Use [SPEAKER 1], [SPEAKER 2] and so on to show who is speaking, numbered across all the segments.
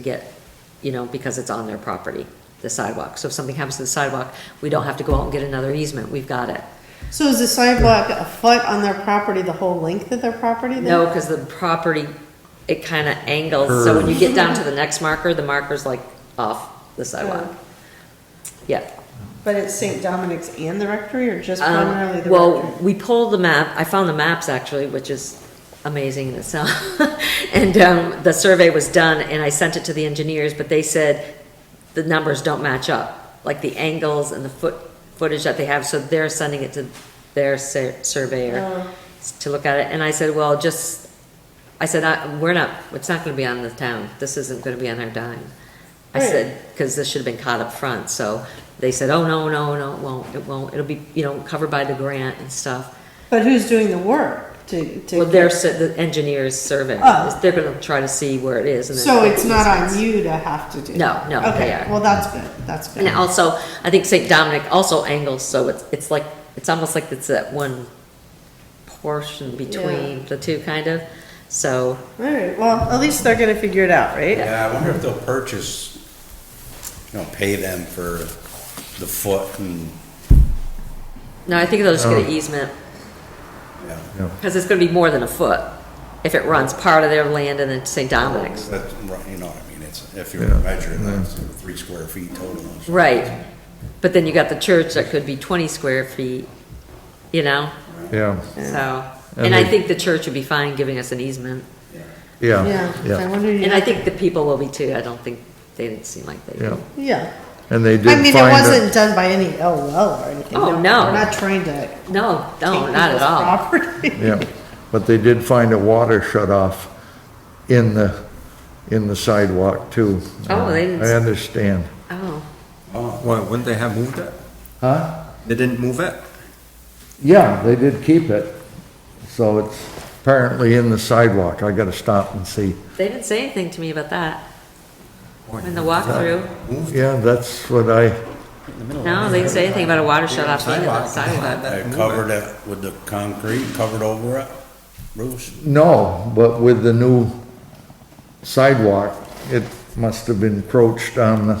[SPEAKER 1] get, you know, because it's on their property, the sidewalk. So if something happens to the sidewalk, we don't have to go out and get another easement, we've got it.
[SPEAKER 2] So is the sidewalk a foot on their property, the whole length of their property then?
[SPEAKER 1] No, because the property, it kind of angles, so when you get down to the next marker, the marker's like off the sidewalk. Yeah.
[SPEAKER 2] But it's St. Dominic's and the rectory, or just
[SPEAKER 1] Um,
[SPEAKER 2] primarily the
[SPEAKER 1] Well,
[SPEAKER 2] rectory?
[SPEAKER 1] we pulled the map, I found the maps actually, which is amazing in itself. And um, the survey was done and I sent it to the engineers, but they said the numbers don't match up, like the angles and the foot, footage that they have, so they're sending it to their sur- surveyor
[SPEAKER 2] Oh.
[SPEAKER 1] to look at it. And I said, well, just, I said, I- we're not, it's not gonna be on the town, this isn't gonna be on our dime. I
[SPEAKER 2] Right.
[SPEAKER 1] said, because this should have been caught up front, so they said, oh, no, no, no, it won't, it won't, it'll be, you know, covered by the grant and stuff.
[SPEAKER 2] But who's doing the work to, to?
[SPEAKER 1] Well, they're, su- the engineers survey,
[SPEAKER 2] Oh.
[SPEAKER 1] they're gonna try to see where it is and then.
[SPEAKER 2] So it's not on you to have to do?
[SPEAKER 1] No, no, they
[SPEAKER 2] Okay,
[SPEAKER 1] are.
[SPEAKER 2] well, that's good, that's good.
[SPEAKER 1] And also, I think St. Dominic also angles, so it's, it's like, it's almost like it's that one portion between the two, kind of, so,
[SPEAKER 2] All right, well, at least they're gonna figure it out, right?
[SPEAKER 3] Yeah, I wonder if they'll purchase, you know, pay them for the foot and,
[SPEAKER 1] no, I think they'll just get an easement,
[SPEAKER 3] you know,
[SPEAKER 1] because it's gonna be more than a foot, if it runs part of their land and then St. Dominic's.
[SPEAKER 3] that's right, you know what I mean, it's, if you were to measure, that's three square feet total.
[SPEAKER 1] Right, but then you got the church that could be twenty square feet, you know,
[SPEAKER 4] Yeah,
[SPEAKER 1] so,
[SPEAKER 4] And
[SPEAKER 1] and I
[SPEAKER 4] they-
[SPEAKER 1] think the church would be fine giving us an easement,
[SPEAKER 4] yeah,
[SPEAKER 2] Yeah, I
[SPEAKER 4] yeah,
[SPEAKER 2] wonder,
[SPEAKER 1] and I
[SPEAKER 2] yeah,
[SPEAKER 1] think the people will be too, I don't think, they didn't seem like they.
[SPEAKER 4] yeah.
[SPEAKER 2] yeah.
[SPEAKER 4] And they
[SPEAKER 2] I
[SPEAKER 4] did
[SPEAKER 2] mean, it
[SPEAKER 4] find,
[SPEAKER 2] wasn't done by any LL or anything.
[SPEAKER 1] Oh, no.
[SPEAKER 2] We're not trying to.
[SPEAKER 1] No,
[SPEAKER 2] take
[SPEAKER 1] no, not at
[SPEAKER 2] people's
[SPEAKER 1] all,
[SPEAKER 2] property.
[SPEAKER 4] a- yeah, but they did find a water shut off in the, in the sidewalk too.
[SPEAKER 1] Oh, they didn't-
[SPEAKER 4] I understand.
[SPEAKER 1] oh,
[SPEAKER 3] Oh,
[SPEAKER 5] Why, wouldn't they have moved it?
[SPEAKER 4] Huh?
[SPEAKER 5] They didn't move it?
[SPEAKER 4] Yeah, they did keep it, so it's apparently in the sidewalk. I gotta stop and see.
[SPEAKER 1] they didn't say anything to me about that, in the walkthrough,
[SPEAKER 4] Yeah, that's what I,
[SPEAKER 1] no, they didn't say anything about a water shut off being in the sidewalk.
[SPEAKER 3] They covered it with the concrete, covered over it, roofs.
[SPEAKER 4] no, but with the new sidewalk, it must have been encroached on the,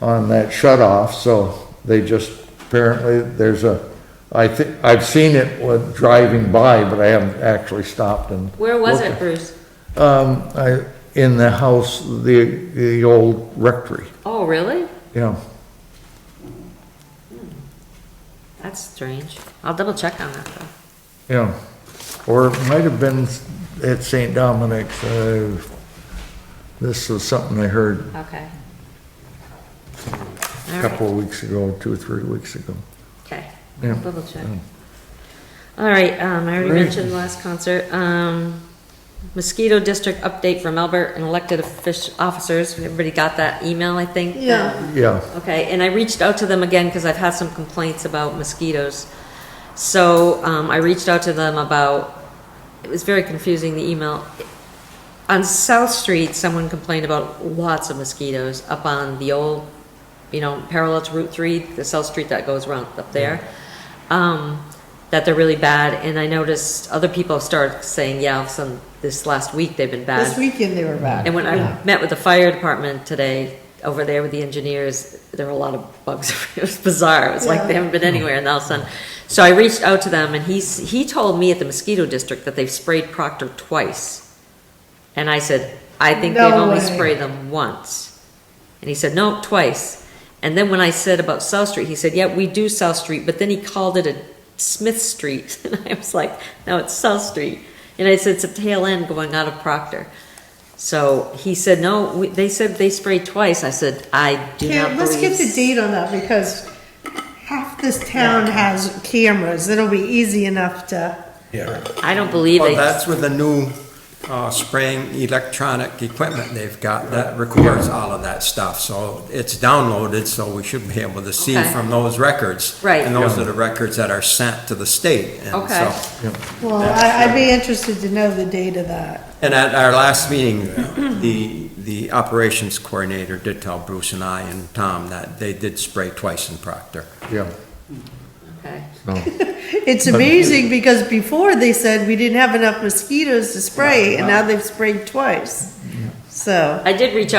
[SPEAKER 4] on that shut off, so they just, apparently, there's a, I think, I've seen it with driving by, but I haven't actually stopped and.
[SPEAKER 1] Where was
[SPEAKER 4] looked.
[SPEAKER 1] it, Bruce?
[SPEAKER 4] Um, I, in the house, the, the old rectory,
[SPEAKER 1] Oh, really?
[SPEAKER 4] you know.
[SPEAKER 1] That's strange, I'll double check on that, though.
[SPEAKER 4] Yeah, or it might have been at St. Dominic's, uh, this was something I heard
[SPEAKER 1] okay.
[SPEAKER 4] a
[SPEAKER 1] All right.
[SPEAKER 4] couple of weeks ago, two or three weeks ago.
[SPEAKER 1] Okay,
[SPEAKER 4] Yeah. Mm.
[SPEAKER 1] double check. All right, um, I already
[SPEAKER 4] Great.
[SPEAKER 1] mentioned the last concert, um, mosquito district update from Albert and elected offic- officers, everybody got that email, I think? Um,
[SPEAKER 2] Yeah.
[SPEAKER 4] Yeah,
[SPEAKER 1] Okay, and I reached out to them again, because I've had some complaints about mosquitoes. So, um, I reached out to them about, it was very confusing, the email. On South Street, someone complained about lots of mosquitoes up on the old, you know, parallel to Route Three, the South Street that goes around up there. Um, that they're really bad, and I noticed other people started saying, yeah, some, this last week they've been bad.
[SPEAKER 2] This weekend they were back.
[SPEAKER 1] And when
[SPEAKER 2] Yeah.
[SPEAKER 1] I met with the fire department today, over there with the engineers, there were a lot of bugs. It was bizarre. It was like they haven't been anywhere and all of a sudden. So I reached out to them and he's, he told me at the mosquito district that they've sprayed Proctor twice. And I said, I think they've
[SPEAKER 2] No
[SPEAKER 1] only
[SPEAKER 2] way.
[SPEAKER 1] sprayed them once. And he said, no, twice. And then when I said about South Street, he said, yeah, we do South Street, but then he called it a Smith Street. And I was like, no, it's South Street. And I said, it's a tail end going out of Proctor. So he said, no, we- they said they sprayed twice. I said, I do
[SPEAKER 2] Yeah,
[SPEAKER 1] not believe.
[SPEAKER 2] let's get the date on that because half this town has cameras. It'll be easy enough to.
[SPEAKER 3] Yeah.
[SPEAKER 1] I don't believe
[SPEAKER 5] Well,
[SPEAKER 1] they,
[SPEAKER 5] that's with the new uh, spraying electronic equipment they've got that records all of that stuff. So it's downloaded, so we should be able to see
[SPEAKER 1] Okay.
[SPEAKER 5] from those records.
[SPEAKER 1] Right.
[SPEAKER 5] And those are the records that are sent to the state. And
[SPEAKER 1] Okay.
[SPEAKER 5] so-
[SPEAKER 2] Well, I, I'd be interested to know the date of that.
[SPEAKER 5] And at our last meeting, the, the operations coordinator did tell Bruce and I and Tom that they did spray twice in Proctor.
[SPEAKER 4] yeah,
[SPEAKER 1] okay.
[SPEAKER 4] so,
[SPEAKER 2] It's amazing because before they said we didn't have enough mosquitoes to spray and now they've sprayed twice. so.
[SPEAKER 1] I did reach out